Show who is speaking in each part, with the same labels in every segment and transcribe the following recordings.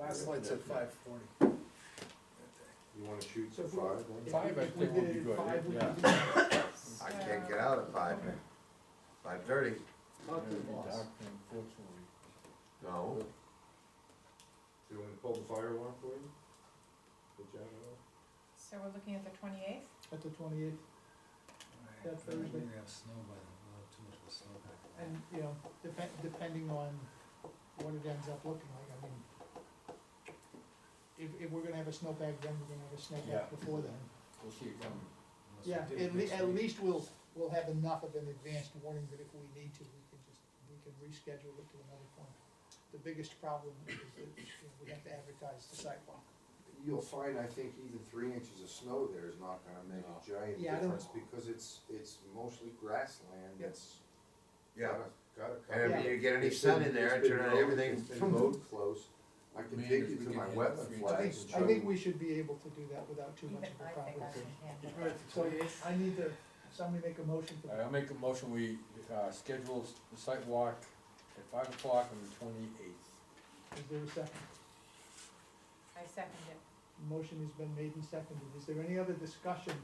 Speaker 1: Last light said five forty.
Speaker 2: You wanna shoot
Speaker 3: So
Speaker 2: for
Speaker 3: if we-
Speaker 2: five then?
Speaker 4: Five, I
Speaker 3: If we
Speaker 4: think, would
Speaker 3: did
Speaker 4: be
Speaker 3: it
Speaker 4: good,
Speaker 3: five, we
Speaker 4: yeah.
Speaker 3: could do it.
Speaker 5: I can't get out at five, five thirty,
Speaker 3: Talk to the
Speaker 4: It'd be
Speaker 3: boss.
Speaker 4: dark, Unfortunately.
Speaker 5: no,
Speaker 2: Do you wanna pull the fire alarm for you? The generator?
Speaker 6: So we're looking at the twenty-eighth?
Speaker 3: At the twenty-eighth, That's
Speaker 1: We're
Speaker 3: Thursday.
Speaker 1: gonna have snow by then, we'll have too much of a snow back then.
Speaker 3: and, you know, depend, depending on what it ends up looking like, I mean, if, if we're gonna have a snowbag, then we're gonna have a
Speaker 4: Yeah.
Speaker 3: snowbag before then.
Speaker 4: We'll see it coming.
Speaker 1: Unless we
Speaker 3: Yeah,
Speaker 1: did it
Speaker 3: at le-
Speaker 1: next
Speaker 3: at
Speaker 1: week.
Speaker 3: least we'll, we'll have enough of an advanced warning that if we need to, we can just, we can reschedule it to another point. The biggest problem is that you know, we have to advertise the sidewalk.
Speaker 2: You'll find, I think, even three inches of snow there is not gonna make a giant
Speaker 3: Yeah, I don't-
Speaker 2: difference, because it's, it's mostly grassland,
Speaker 3: Yep.
Speaker 2: it's
Speaker 5: yeah.
Speaker 2: gotta, gotta
Speaker 5: And if
Speaker 2: cover.
Speaker 5: you get any
Speaker 2: It's been-
Speaker 5: sun in there,
Speaker 2: it's
Speaker 5: and
Speaker 2: been
Speaker 5: turn on
Speaker 2: mowed-
Speaker 5: everything,
Speaker 2: It's been mowed close, I can
Speaker 4: Man,
Speaker 2: take
Speaker 4: if
Speaker 2: you
Speaker 4: we
Speaker 2: to
Speaker 4: could
Speaker 2: my
Speaker 4: hit
Speaker 2: weapon
Speaker 4: three
Speaker 3: I think,
Speaker 2: flags and show
Speaker 3: I think
Speaker 2: you.
Speaker 3: we should be able to do that without too
Speaker 6: Even
Speaker 3: much of
Speaker 6: I
Speaker 3: a
Speaker 6: think I
Speaker 3: problem.
Speaker 6: can handle
Speaker 1: All right,
Speaker 6: that.
Speaker 3: So I need to, somebody make a motion for
Speaker 4: All right, I'll
Speaker 3: that.
Speaker 4: make a motion, we, uh, schedule s- the site walk at five o'clock on the twenty-eighth.
Speaker 3: Is there a second?
Speaker 6: I second it.
Speaker 3: Motion has been made and seconded. Is there any other discussion?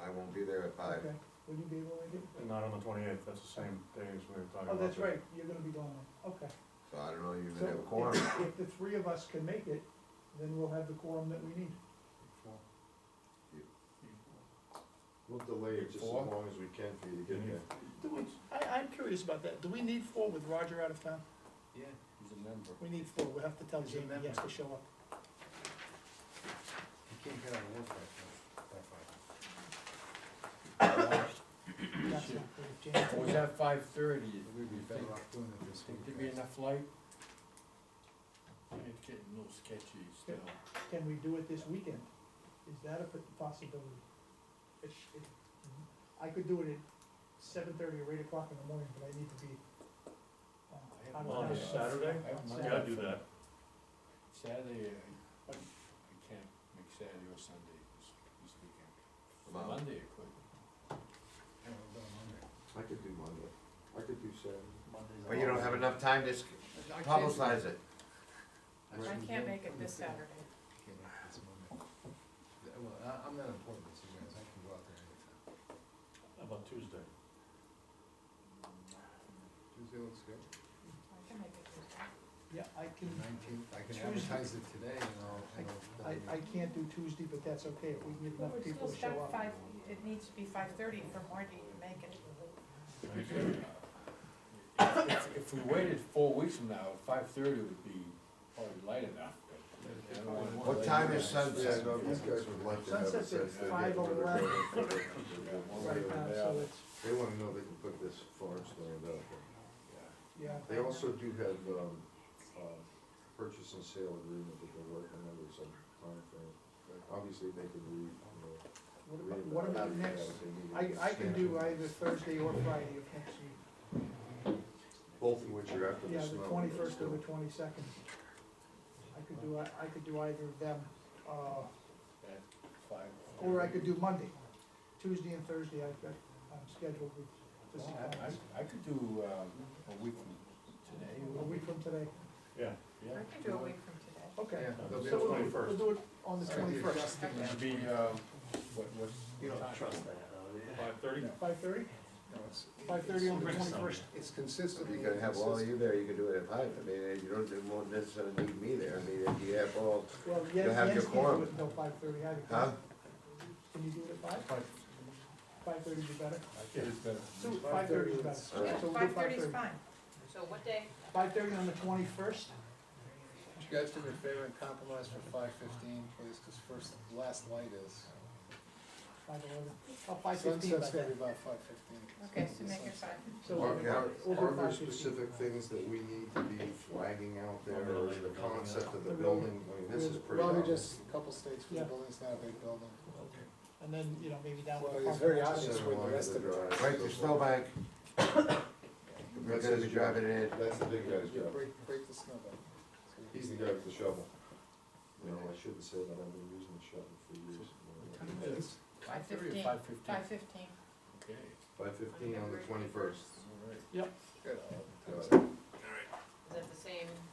Speaker 5: I won't be there at five.
Speaker 3: Okay. Will you be able to do?
Speaker 7: Not on the twenty-eighth, that's the same day as we were talking
Speaker 3: Oh,
Speaker 7: about.
Speaker 3: that's
Speaker 7: the-
Speaker 3: right, you're gonna be going on, okay.
Speaker 5: So I don't know, you
Speaker 3: So
Speaker 5: gonna have a quorum.
Speaker 3: if- If the three of us can make it, then we'll have the quorum that we need.
Speaker 2: We'll delay it just as
Speaker 4: Four.
Speaker 2: long as we can for you to get there.
Speaker 3: Do we, I, I'm curious about that. Do we need four with Roger out of town?
Speaker 1: Yeah,
Speaker 4: He's a member.
Speaker 3: We need four. We'll have to tell
Speaker 1: Is he a
Speaker 3: Jamie
Speaker 1: member?
Speaker 3: he has to show up.
Speaker 1: you can't get out of work by five, by five.
Speaker 3: That's not good. Jamie-
Speaker 4: Or was that five thirty, we'd
Speaker 1: We'd
Speaker 4: be
Speaker 1: be better
Speaker 4: thinking,
Speaker 1: off doing it this
Speaker 4: think
Speaker 1: week.
Speaker 4: there'd be enough light? It's getting a little sketchy still.
Speaker 3: Can we do it this weekend? Is that a p- possibility? It sh- it- I could do it at seven thirty or eight o'clock in the morning, but I need to be. uh, out of
Speaker 7: On
Speaker 3: town.
Speaker 7: Saturday?
Speaker 4: I have
Speaker 3: On
Speaker 4: my-
Speaker 7: Yeah, do that.
Speaker 4: Saturday, uh, I, I can't make Saturday or Sunday this, this weekend.
Speaker 5: Wow.
Speaker 4: Monday, I could.
Speaker 1: Yeah, we'll go on Monday.
Speaker 2: I could do Monday, I could do Saturday.
Speaker 5: But you don't have enough time to s-
Speaker 1: I can't-
Speaker 5: publicize it.
Speaker 6: I
Speaker 1: shouldn't
Speaker 6: can't
Speaker 1: do
Speaker 6: make it this
Speaker 1: Yeah,
Speaker 6: Saturday.
Speaker 1: Can't make it this Monday. Yeah, Well, I, I'm not important to you guys, I can go out there anytime.
Speaker 7: How About Tuesday.
Speaker 1: Tuesday looks good.
Speaker 6: I can make it Tuesday.
Speaker 3: Yeah, I can,
Speaker 1: Nineteenth, I can
Speaker 3: Tuesday.
Speaker 1: advertise it today and I'll, and I'll.
Speaker 3: I, I can't do Tuesday, but that's okay, if we can get
Speaker 6: Well,
Speaker 3: enough
Speaker 6: we're
Speaker 3: people
Speaker 6: still
Speaker 3: to show up.
Speaker 6: stuck five, it needs to be five thirty for Marty to make it.
Speaker 4: If, if- if we waited four weeks from now, five thirty would be probably light enough. but I don't wanna
Speaker 5: What
Speaker 4: delay
Speaker 5: time
Speaker 4: you
Speaker 5: is
Speaker 4: guys.
Speaker 5: sunset?
Speaker 2: Yeah, no, these guys would like to have it
Speaker 3: Sunset's at
Speaker 2: since they get
Speaker 3: five
Speaker 2: another
Speaker 3: eleven.
Speaker 2: building for their-
Speaker 3: Right now, so it's,
Speaker 2: They wanna know they can put this farm stand up.
Speaker 3: yeah.
Speaker 2: They also do have, um, uh, purchase and sale agreement that they're working under some timeframe. Obviously, they can read, you
Speaker 3: What
Speaker 2: know.
Speaker 3: about,
Speaker 2: read
Speaker 3: what
Speaker 2: about
Speaker 3: about
Speaker 2: it
Speaker 3: next,
Speaker 2: if they need
Speaker 3: I,
Speaker 2: it.
Speaker 3: I can do either Thursday or Friday of next week,
Speaker 2: Both of which are after the
Speaker 3: yeah,
Speaker 2: snow.
Speaker 3: the
Speaker 2: but
Speaker 3: twenty-first or
Speaker 2: still.
Speaker 3: the twenty-second. I could do, I, I could do either of them, uh,
Speaker 4: At five.
Speaker 3: Or I could do Monday, Tuesday and Thursday, I've got, I'm scheduled with
Speaker 4: Well,
Speaker 3: physical
Speaker 4: Oh, I,
Speaker 3: therapy.
Speaker 4: I- I could do, um, a week from today.
Speaker 3: a week from today,
Speaker 7: Yeah.
Speaker 4: Yeah.
Speaker 6: I can do a week from today.
Speaker 3: okay.
Speaker 1: Yeah, they'll be
Speaker 3: So we'll,
Speaker 1: able to-
Speaker 3: we'll do it on the
Speaker 4: All right.
Speaker 3: twenty-first,
Speaker 6: Okay.
Speaker 4: It'd be, um, what, what's?
Speaker 1: You
Speaker 4: what time?
Speaker 1: don't trust that, though, do you?
Speaker 7: Five thirty?
Speaker 3: five thirty,
Speaker 1: No, it's-
Speaker 3: five thirty on the
Speaker 7: Bring some.
Speaker 3: twenty-first.
Speaker 1: It's
Speaker 5: If
Speaker 1: consistent.
Speaker 5: you could have all of you there, you could do it at five. I mean, you don't, you won't necessarily need me there. I mean, if you have all,
Speaker 3: Well, Jens,
Speaker 5: You'll have
Speaker 3: Jens
Speaker 5: your
Speaker 3: can't do
Speaker 5: quorum.
Speaker 3: it until five thirty, I
Speaker 5: huh?
Speaker 3: can, can you do it at five?
Speaker 4: Five.
Speaker 3: Five thirty be better,
Speaker 4: It is better.
Speaker 3: so five thirty is better, so
Speaker 5: All
Speaker 3: we'll
Speaker 5: right.
Speaker 3: do
Speaker 6: Five
Speaker 3: five
Speaker 6: thirty
Speaker 3: thirty.
Speaker 6: is fine. So what day?
Speaker 3: Five thirty on the twenty-first,
Speaker 1: Would you guys do me a favor and compromise for five fifteen, please, because first, last light is.
Speaker 3: five eleven, oh, five fifteen by
Speaker 1: Sunset's gonna be
Speaker 3: then.
Speaker 1: about five fifteen.
Speaker 6: Okay, so make it five.
Speaker 3: So
Speaker 2: Are,
Speaker 3: we'll do-
Speaker 2: are,
Speaker 3: we'll do
Speaker 2: are there
Speaker 3: 5:15.
Speaker 2: specific things that we need to be flagging out there, or is the concept of the
Speaker 3: Maybe-
Speaker 2: building, I mean, this is pretty
Speaker 1: Probably
Speaker 2: obvious.
Speaker 1: just a couple states, because
Speaker 3: Yeah.
Speaker 1: the building's not a big building.
Speaker 3: And then, you know, maybe down.
Speaker 1: Well,
Speaker 3: the
Speaker 1: it's very
Speaker 3: park and
Speaker 1: obvious
Speaker 3: stuff.
Speaker 2: Center
Speaker 1: where the
Speaker 2: line
Speaker 1: rest
Speaker 2: the
Speaker 1: of it-
Speaker 2: drive.
Speaker 5: Right, the snowbank, we're
Speaker 2: That's
Speaker 5: gonna
Speaker 2: his
Speaker 5: be
Speaker 2: job.
Speaker 5: driving in.
Speaker 2: That's the big guy's
Speaker 1: You
Speaker 2: job,
Speaker 1: break, break the snow back.
Speaker 2: he's the guy with the shovel. No, I shouldn't say that, I've been using the shovel for years.
Speaker 4: Five thirty or
Speaker 6: 5:15.
Speaker 4: five fifteen?
Speaker 6: Five fifteen.
Speaker 4: Okay,
Speaker 2: Five fifteen on the twenty-first.
Speaker 4: all right.
Speaker 1: Good.
Speaker 6: Is that the same